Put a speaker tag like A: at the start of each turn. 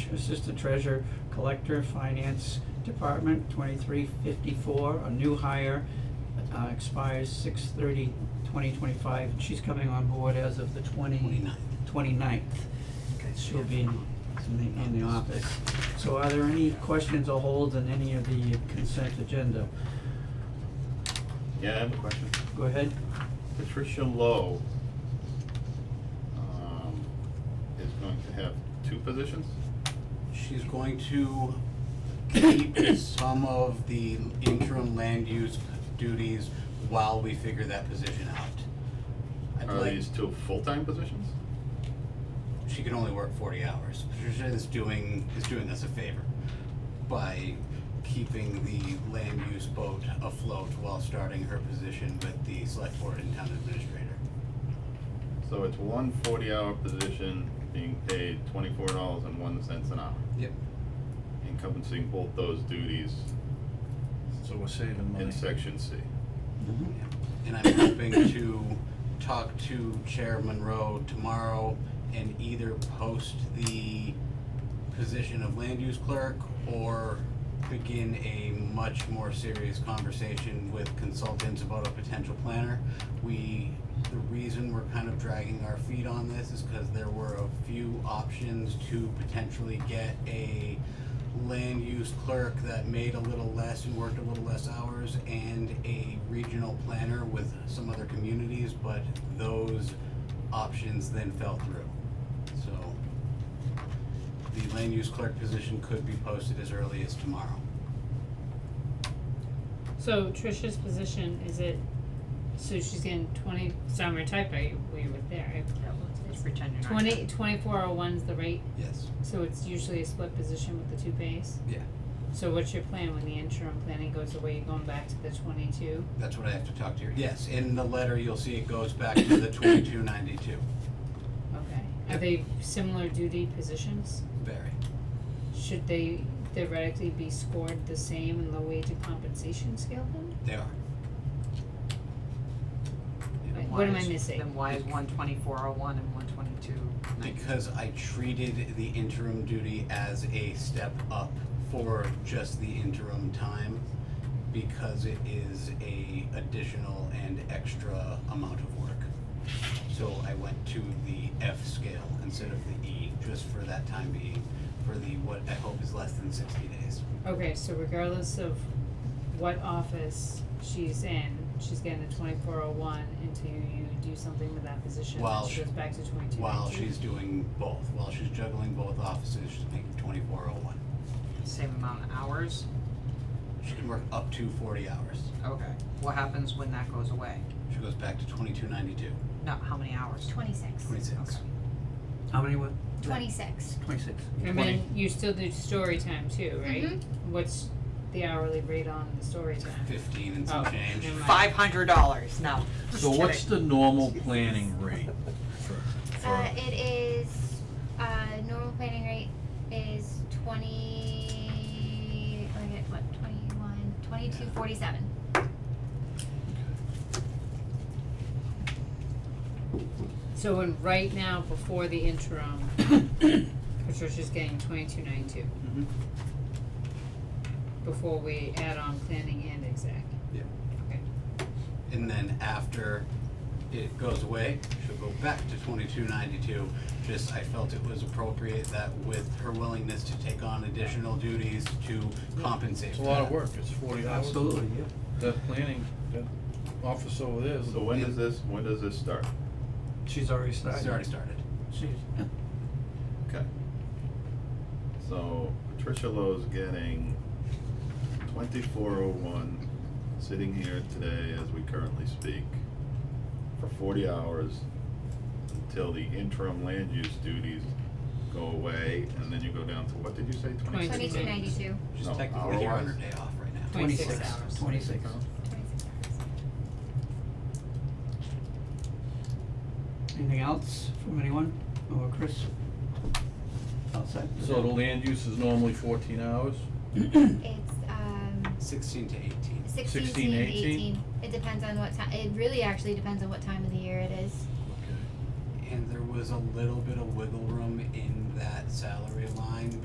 A: to Assistant Treasurer Collector Finance Department, twenty-three fifty-four, a new hire, uh, expires six thirty twenty twenty-five, and she's coming on board as of the twenty.
B: 29th.
A: 29th.
B: Okay.
A: She'll be in, in the, in the office. So are there any questions or holds on any of the consent agenda?
C: Yeah, I have a question.
A: Go ahead.
C: Patricia Lowe, um, is going to have two positions?
B: She's going to keep some of the interim land use duties while we figure that position out. I'd
C: Are
B: like-
C: these two full-time positions?
B: she can only work forty hours. Patricia is doing is doing us a favor by keeping the land use boat afloat while starting her position with the select board and town administrator.
C: So it's one forty-hour position being paid twenty-four dollars and one cents an hour,
B: Yep.
C: encompassing both those duties
D: So we're saving money.
C: in section C.
B: And I'm hoping to talk to Chair Monroe tomorrow and either post the position of land use clerk or begin a much more serious conversation with consultants about a potential planner. We, the reason we're kind of dragging our feet on this is because there were a few options to potentially get a land use clerk that made a little less and worked a little less hours and a regional planner with some other communities, but those options then fell through. So the land use clerk position could be posted as early as tomorrow.
E: So Tricia's position, is it, so she's getting twenty, so I'm gonna type it, we were there.
F: Let's pretend you're not.
E: Twenty, twenty-four oh one's the rate,
B: Yes.
E: so it's usually a split position with the two pays?
B: Yeah.
E: So what's your plan when the interim planning goes away, you going back to the twenty-two?
B: That's what I have to talk to you. Yes, in the letter, you'll see it goes back to the twenty-two ninety-two.
E: Okay, are they similar duty positions?
B: Very.
E: Should they theoretically be scored the same in the wage and compensation scale then?
B: They are.
F: Then
E: Right,
F: why
E: what am
F: is-
E: I missing?
F: Then why is one twenty-four oh one and one twenty-two nineteen?
B: Because I treated the interim duty as a step up for just the interim time because it is a additional and extra amount of work. So I went to the F scale instead of the E, just for that time being, for the, what I hope is less than sixty days.
E: Okay, so regardless of what office she's in, she's getting the twenty-four oh one until you do something with that position,
B: While
E: then she
B: she-
E: goes back to twenty-two.
B: While she's doing both, while she's juggling both offices, she's making twenty-four oh one.
F: Same amount of hours?
B: She can work up to forty hours.
F: Okay. What happens when that goes away?
B: She goes back to twenty-two ninety-two,
F: Not how many hours?
G: Twenty-six.
B: twenty-six.
F: Okay.
A: How many were?
G: Twenty-six.
A: Twenty-six.
E: And then you still do story time too, right?
G: Mhm.
E: What's the hourly rate on the story time?
B: fifteen and some
E: Oh,
B: change.
E: never mind.
F: Five hundred dollars, no, just
D: So what's
F: kidding.
D: the normal planning rate for,
G: Uh,
D: for,
G: it is, uh, normal planning rate is twenty, I get what, twenty-one, twenty-two forty-seven.
E: So when, right now, before the interim, Patricia's getting twenty-two ninety-two.
B: Mhm.
E: Before we add on planning and exec.
B: Yep.
E: Okay.
B: And then after it goes away, she'll go back to twenty-two ninety-two. Just, I felt it was appropriate that with her willingness to take on additional duties to compensate
D: it's
B: for
D: a lot of
B: that.
D: work, it's forty hours.
A: Absolutely, yeah.
D: That planning, that office over there is.
C: So when does this, when does this start?
A: She's already started.
B: It's already started.
A: She's, yeah.
C: Okay. So Patricia Lowe's getting twenty-four oh one, sitting here today as we currently speak, for forty hours until the interim land use duties go away, and then you go down to, what did you say, twenty-six?
E: Twenty-two.
G: Twenty-two ninety-two.
B: She's
C: No,
B: technically here on her
C: hour-wise?
B: day off right now.
E: Twenty-six
A: Twenty-six.
E: hours.
A: Twenty-six.
G: Twenty-six hours.
A: Anything else from anyone or Chris? Outside.
D: So the land use is normally fourteen hours?
G: It's, um,
B: Sixteen to eighteen.
G: sixteen,
D: 16,
G: eighteen.
D: 18.
G: It depends on what time, it really actually depends on what time of the year it is.
D: Okay.
B: And there was a little bit of wiggle room in that salary line